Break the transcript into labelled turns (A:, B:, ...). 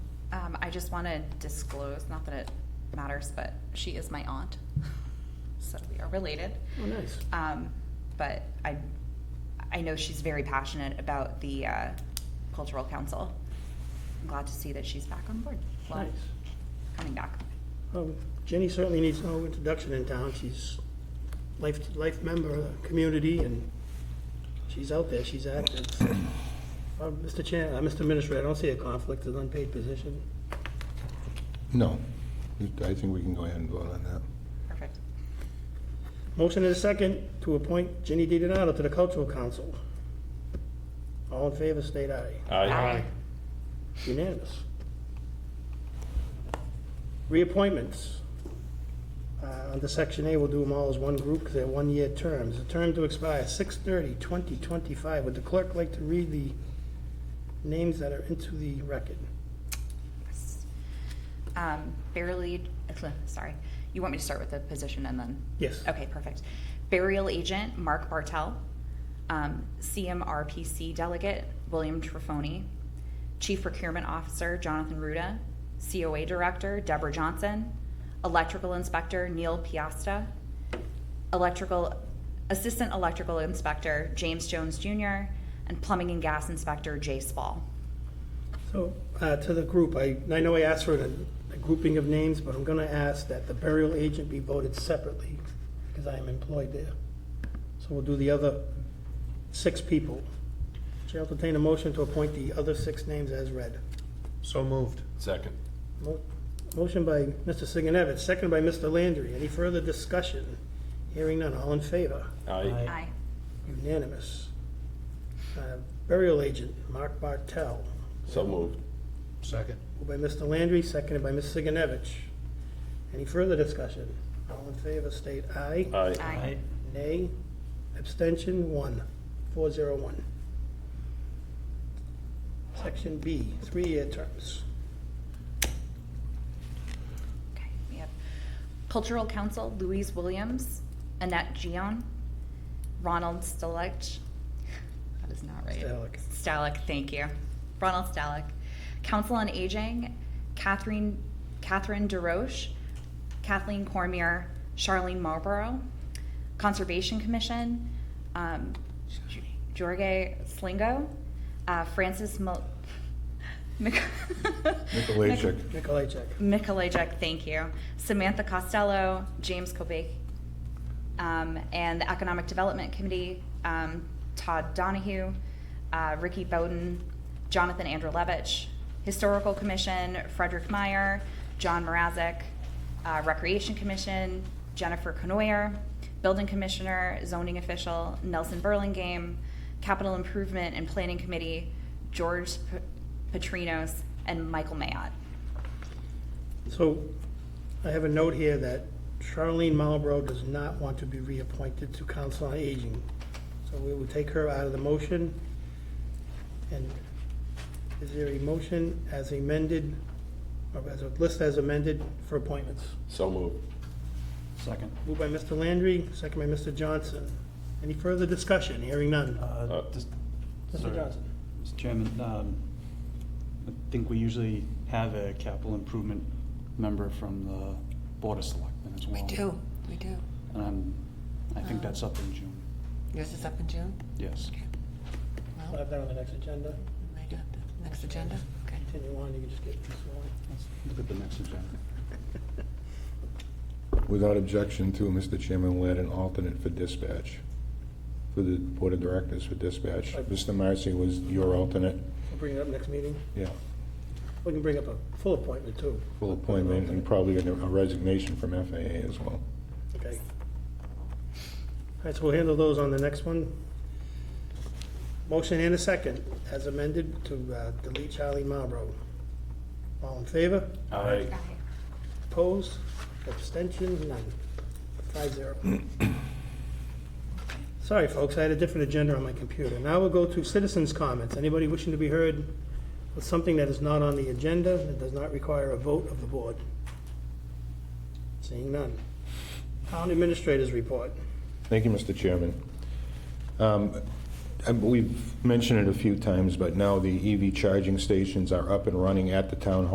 A: Um, I just want to disclose, not that it matters, but she is my aunt. So we are related.
B: Oh, nice.
A: Um, but I, I know she's very passionate about the uh, cultural council. I'm glad to see that she's back on board. Well,
B: Nice.
A: coming back.
B: Well, Jenny certainly needs no introduction in town. She's life, life member of the community and she's out there, she's active. Uh, Mr. Chair, uh, Mr. Minister, I don't see a conflict with unpaid position.
C: No, I think we can go ahead and vote on that.
A: Perfect.
B: Motion is second to appoint Jenny Di Donato to the Cultural Council. All in favor, state aye.
A: Aye.
B: Unanimous. Reappointments. Uh, Under Section A, we'll do them all as one group because they're one-year terms. The term to expire 6/30/2025. Would the clerk like to read the names that are into the record?
A: Yes. Um, burial aid- sorry. You want me to start with the position and then?
B: Yes.
A: Okay, perfect. Burial agent, Mark Bartel. Um, CMRPC delegate, William Trefoni. Chief procurement officer, Jonathan Ruda. COA director, Deborah Johnson. Electrical inspector, Neil Piasta. Electrical, assistant electrical inspector, James Jones Jr. And plumbing and gas inspector, Jay Spall.
B: So, uh, to the group, I, I know I asked for a a grouping of names, but I'm going to ask that the burial agent be voted separately because I am employed there. So we'll do the other six people. Chair will entertain a motion to appoint the other six names as read.
D: So moved.
E: Second.
B: Mo- Motion by Mr. Sigenovich, second by Mr. Landry. Any further discussion? Hearing none, all in favor?
E: Aye.
A: Aye.
B: Unanimous. Uh, Burial agent, Mark Bartel.
E: So moved.
D: Second.
B: Moved by Mr. Landry, seconded by Ms. Sigenovich. Any further discussion? All in favor, state aye.
E: Aye.
A: Aye.
B: Nay. Abstention, one. Four zero one. Section B, three-year terms.
A: Okay, we have Cultural Council, Louise Williams, Annette Gion, Ronald Stalich. That is not right.
B: Stalick.
A: Stalick, thank you. Ronald Stalick. Council on Aging, Catherine, Catherine DeRoche, Kathleen Cormier, Charlene Marlborough, Conservation Commission, um, Jorge Slingo, uh, Francis Mil- Mc-
C: Mikulicek.
B: Nikolajczyk.
A: Mikolajczyk, thank you. Samantha Costello, James Kobach, um, and the Economic Development Committee, um, Todd Donahue, uh, Ricky Bowden, Jonathan Andrelevich, Historical Commission, Frederick Meyer, John Morazic, uh, Recreation Commission, Jennifer Canoyer, Building Commissioner, Zoning Official, Nelson Burlingame, Capital Improvement and Planning Committee, George P- Petrinos, and Michael Mayotte.
B: So I have a note here that Charlene Marlborough does not want to be reappointed to Council on Aging. So we will take her out of the motion. And is there a motion as amended, or as a list as amended for appointments?
E: So moved.
D: Second.
B: Moved by Mr. Landry, second by Mr. Johnson. Any further discussion? Hearing none.
D: Uh,
E: Uh,
D: just-
B: Mr.
D: sorry,
B: Johnson?
D: Mr. Chairman, um, I think we usually have a capital improvement member from the Board of Selectmen as well.
F: We do, we do.
D: And I'm, I think that's up in June,
F: Yours is up in June?
D: yes.
F: Okay.
B: We'll
F: Well,
B: have that on the next agenda.
F: we might have the next agenda, okay.
B: Continue on, you can just get this one.
D: Let's Look at the next agenda.
C: Without objection to, Mr. Chairman, we'll add an alternate for dispatch, for the Board of Directors for dispatch. Mr. Marcy was your alternate,
B: We'll bring it up next meeting.
C: yeah,
B: We can bring up a full appointment, too.
C: full appointment, and probably a resignation from FAA as well.
B: Okay. All right, so we'll handle those on the next one. Motion and a second, as amended, to uh, delete Charlie Marlborough. All in favor?
E: Aye.
B: Opposed? Abstention? None. Five zero. Sorry, folks, I had a different agenda on my computer. Now we'll go to citizens' comments. Anybody wishing to be heard with something that is not on the agenda, that does not require a vote of the board? Seeing none. Town administrators report.
C: Thank you, Mr. Chairman. Um, and E We've mentioned it a few times, but now the EV charging stations are up and running at the town hall.